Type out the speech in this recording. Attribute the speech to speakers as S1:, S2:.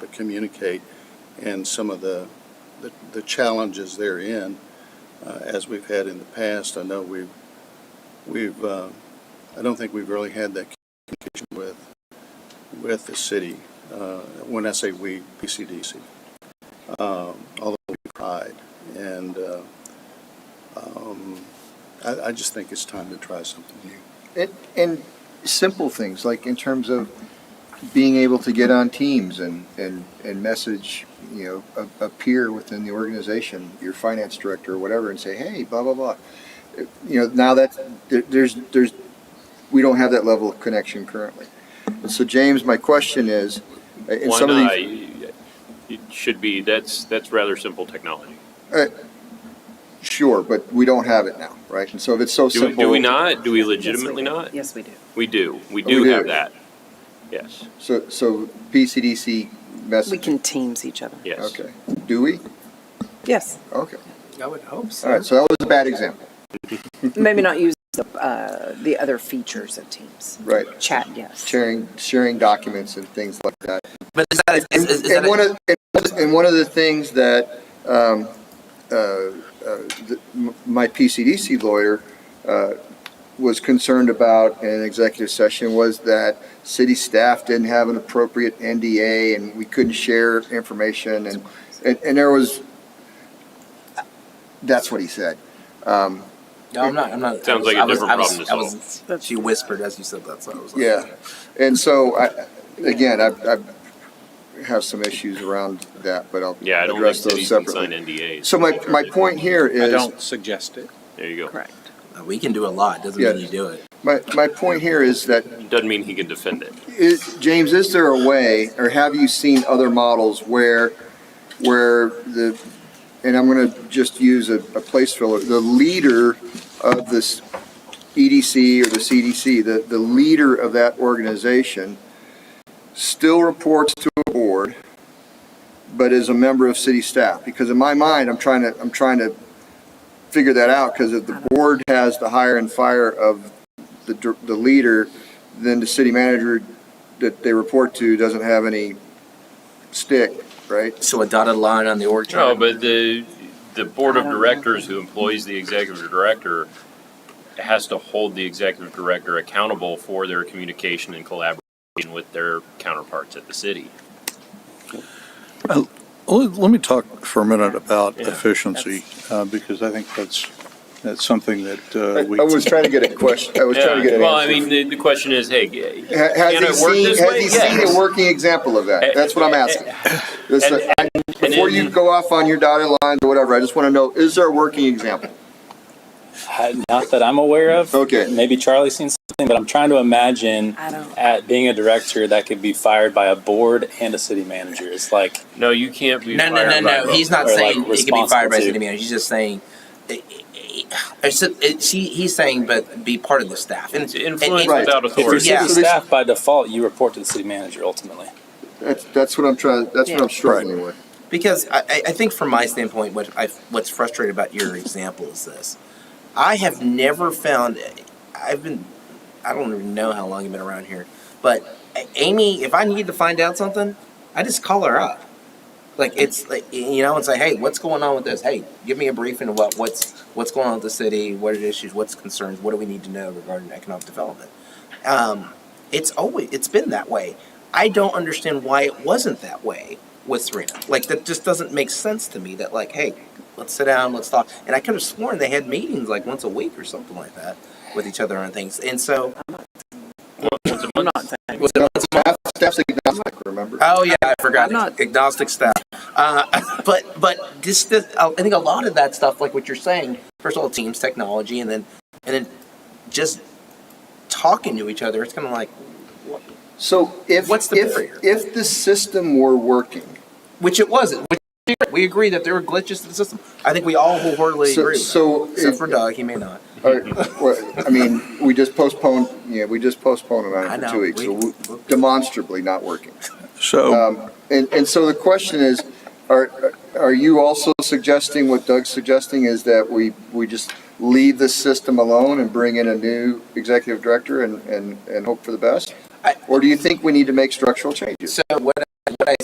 S1: to communicate and some of the, the- the challenges therein, uh, as we've had in the past. I know we've, we've, uh, I don't think we've really had that communication with, with the city. Uh, When I say we, PCDC, um, although we tried. And uh, um, I, I just think it's time to try something new.
S2: And, and simple things, like in terms of being able to get on teams and, and, and message, you know, a, a peer within the organization, your finance director or whatever, and say, hey, blah, blah, blah. You know, now that's, there, there's, there's, we don't have that level of connection currently. And so James, my question is, uh, in
S3: Why
S2: some of
S3: not?
S2: these,
S3: It should be, that's, that's rather simple technology.
S2: sure, but we don't have it now, right? And so if it's so
S3: Do, we-
S2: simple.
S3: do we not? Do we
S4: Yes, we
S3: legitimately
S4: do.
S3: not?
S4: Yes, we do.
S3: We do. We
S2: Oh, we
S3: do
S2: do.
S3: have that. Yes,
S2: So, so PCDC
S4: We
S2: message,
S4: can teams each other.
S3: yes.
S2: okay. Do we?
S4: Yes,
S2: Okay.
S5: I would hope
S2: All right, so that was a bad example,
S4: maybe not use the, uh, the other features of teams.
S2: right?
S4: Chat, yes.
S2: Sharing, sharing documents and things like that.
S6: But is that, is, is, is that
S2: And one of, and one of the things that, um, uh, uh, the- m- my PCDC lawyer, uh, was concerned about in an executive session was that city staff didn't have an appropriate NDA and we couldn't share information and, and, and there was, that's what he said. Um,
S6: no, I'm not. I'm not.
S3: Sounds like a
S6: I was-
S3: different
S6: I was-
S3: problem to
S6: I was- I was- she whispered as you said that, so I was like,
S2: Yeah, and so I, again, I, I have some issues around that, but I'll
S3: Yeah, I don't think
S2: address
S3: cities
S2: those
S3: can sign
S2: separately.
S3: NDAs.
S2: So my, my point here
S5: I
S2: is,
S5: don't suggest it.
S3: There you go.
S4: Correct.
S6: "Uh, We can do a lot. Doesn't
S2: Yeah.
S6: mean you do it.
S2: my, my point here is that,
S3: Doesn't mean he can defend it.
S2: is, James, is there a way, or have you seen other models where, where the, and I'm gonna just use a, a place filler, the leader of this EDC or the CDC, the, the leader of that organization still reports to a board, but is a member of city staff, because in my mind, I'm trying to, I'm trying to figure that out, because if the board has the hire and fire of the, dir- the leader, then the city manager that they report to doesn't have any stick, right?
S6: So a dotted line on the org
S3: No,
S6: chart.
S3: but the, the board of
S4: I don't know.
S3: directors who employs the executive director has to hold the executive director accountable for their communication and collaboration with their counterparts at the city.
S7: Let let me talk for a minute about
S3: Yeah.
S7: efficiency, uh, because I think that's, that's something that
S2: I
S7: uh, we.
S2: was trying to get a question, I was trying to get an
S3: Well, I
S2: answer.
S3: mean, the, the question is, hey, g-
S2: Ha- Has
S3: Can
S2: he
S3: it work
S2: seen,
S3: this
S2: has
S3: way?
S2: he seen
S3: Yes. Eh,
S2: a working example of that? That's what I'm asking. This-
S3: and-
S2: I-
S3: and
S2: Before you
S3: in-
S2: go off on your dotted lines or whatever, I just want to know, is there a working example?
S8: Uh, Not that I'm aware of.
S2: Okay.
S8: Maybe Charlie's seen something, but I'm trying to imagine
S4: I don't-
S8: at being a director that could be fired by a board and a city manager. It's like
S3: no, you can't be
S6: no, no, no,
S3: fired by
S6: no.
S3: vote.
S6: He's not
S8: Or, like,
S6: saying he can be fired by
S8: responsible
S6: city
S8: to.
S6: manager. He's just saying. eh, it- it- it's- it- she, he's saying, but be part of the staff. And,
S3: It's influence
S2: Right.
S3: without
S8: if you're
S3: authority.
S8: city
S6: Yeah.
S8: staff by default, you report to the city manager ultimately.
S2: That's, that's what I'm trying, that's what I'm
S4: Yeah.
S2: struggling with.
S6: Because I- I, I think from my standpoint, what I, what's frustrating about your example is this. I have never found, I've been, I don't even know how long you've been around here, but A- Amy, if I need to find out something, I just call her up. Like it's like you know, and say, hey, what's going on with this? Hey, give me a briefing of what what's what's going on with the city, what are the issues, what's concerns, what do we need to know regarding economic development? Um, it's always it's been that way. I don't understand why it wasn't that way with Serena. Like that just doesn't make sense to me. That like, hey, let's sit down, let's talk. And I could have sworn they had meetings like once a week or something like that with each other on things. And so,
S4: I'm not saying.
S6: was it once a month?
S2: Staff- Staff's agnostic, remember?
S6: Oh yeah, I forgot.
S4: I'm not-
S6: Agnostic stuff. Uh, but but this, this uh, I think a lot of that stuff, like what you're saying, first of all, teams, technology, and then and then just talking to each other. It's kind of like,
S2: So if,
S6: What's the barrier?
S2: if, if the system were working,
S6: which it wasn't. Which we agree that there were glitches to the system. I think we all wholeheartedly
S2: So-
S6: agree. with that.
S2: so
S6: except
S2: if-
S6: for Doug, he may not.
S2: or, well, I mean, we just postponed, yeah, we just postponed it on
S6: I
S2: it for
S6: know,
S2: two weeks, so
S6: we-
S2: we- demonstrably not working.
S7: So,
S2: Um, And, and so the question is, are, are you also suggesting, what Doug's suggesting is that we, we just leave this system alone and bring in a new executive director and, and, and hope for the best?
S6: I-
S2: Or do you think we need to make structural changes?
S6: So what